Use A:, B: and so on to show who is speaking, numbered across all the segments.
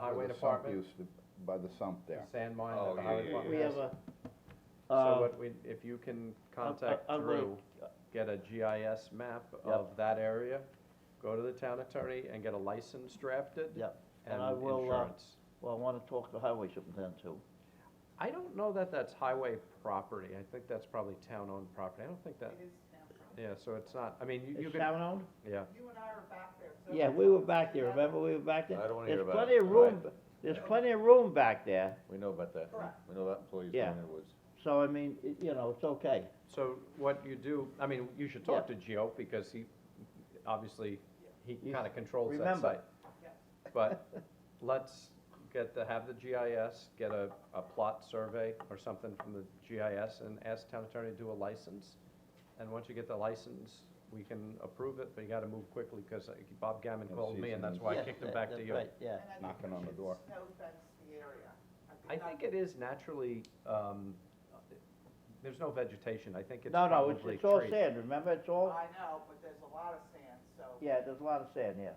A: highway
B: the sump
A: department,
B: used to- By the sump
A: the
B: there.
A: sand mine
C: Oh,
A: that the
C: yeah,
A: highway
C: yeah,
A: department
D: We
A: has.
D: have a,
A: So
D: uh,
A: what we, if you can contact
D: I'm gonna-
A: Drew, get a GIS map of that area, go to the town attorney and get a license drafted.
E: Yep.
A: And
E: And I will, uh,
A: insurance.
E: Well, I want to talk to Highway Superintendent too.
A: I don't know that that's highway property, I think that's probably town-owned property, I don't think that,
F: It is now.
A: yeah, so it's not, I mean, you, you
D: is
A: could,
D: town owned?
A: yeah.
F: You and I are back there. so-
E: Yeah, we were back there, remember, we were back there?
C: I don't wanna hear about
E: There's plenty
C: it.
E: of room, there's plenty of room back there,
C: We know about that.
F: Correct.
C: We know that employee's
E: Yeah.
C: down in the woods.
E: so I mean, it- you know, it's okay.
A: So what you do, I mean, you should talk to Gio, because he, obviously, he
E: You-
A: kinda controls that
E: remember.
A: site. But let's get to, have the GIS, get a, a plot survey or something from the GIS, and ask town attorney to do a license. And once you get the license, we can approve it, but you gotta move quickly, cause uh, Bob Gammon
B: And
A: called me, and that's
B: seasons.
A: why I
E: Yeah,
A: kicked him
E: that-
A: back
E: that's
A: to you.
E: right, Yeah,
F: And I think
B: Knocking
F: we
B: on the
F: should
B: door.
F: Snow fence the area.
A: I think it is naturally, um, there's no vegetation, I think it's
E: no,
A: probably
E: no, it's, it's all
A: trees.
E: sand, remember, it's all,
F: I know, but there's a lot of sand, so.
E: yeah, there's a lot of sand, yeah.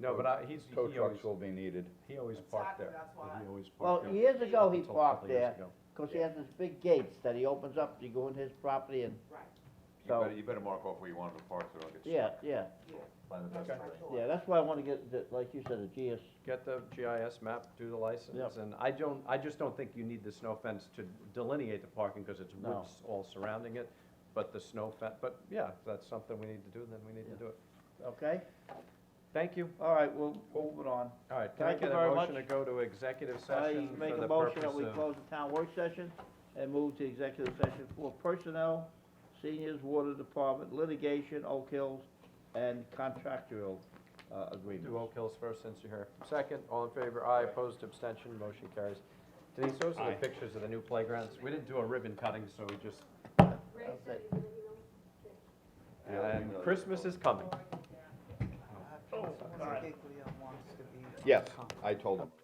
A: No, but I, he's, he
B: Tow
A: always,
B: trucks will be needed.
A: he always
F: Exactly,
A: parked there.
F: that's why.
A: He always
E: Well,
A: parked there.
E: years ago, he
A: Up until a couple
E: parked
A: years
E: there,
A: ago.
E: because he has this big gates that he opens up, you go in his property and,
F: Right,
C: You
E: So-
C: better, you better mark off where you want them to park so they don't get
E: yeah,
C: stuck.
E: yeah,
F: yeah.
C: Find the
F: That's
C: best
F: my
C: terrain.
F: thought.
E: yeah, that's why I wanna get, the- like you said, a GS,
A: Get the GIS map, do the license,
E: Yep.
A: and I don't, I just don't think you need the snow fence to delineate the parking, because it's
E: No.
A: woods all surrounding it. But the snow fence, but yeah, if that's something we need to do, then we need to
E: Yeah.
A: do it.
E: okay?
A: Thank you.
E: All right, well, moving on.
A: All right, can I
E: Thank you
A: get a
E: very
A: motion to
E: much.
A: go to executive
E: I
A: session
E: make
A: for
E: a
A: the
E: motion
A: purpose
E: that we
A: of?
E: close the town work session and move to executive session for personnel, seniors, water department, litigation, Oak Hills, and contractual, uh,
A: Do
E: agreements.
A: Oak Hills first, since you're here. Second, all in favor, aye, opposed, abstention, motion carries. Denise, those are the pictures of the new playgrounds. We didn't do a ribbon cutting, so we just,
C: Yeah, we
A: and
C: know.
A: Christmas is coming.
F: Uh, Councilwoman Giglio wants to be.
B: Yes, I told him.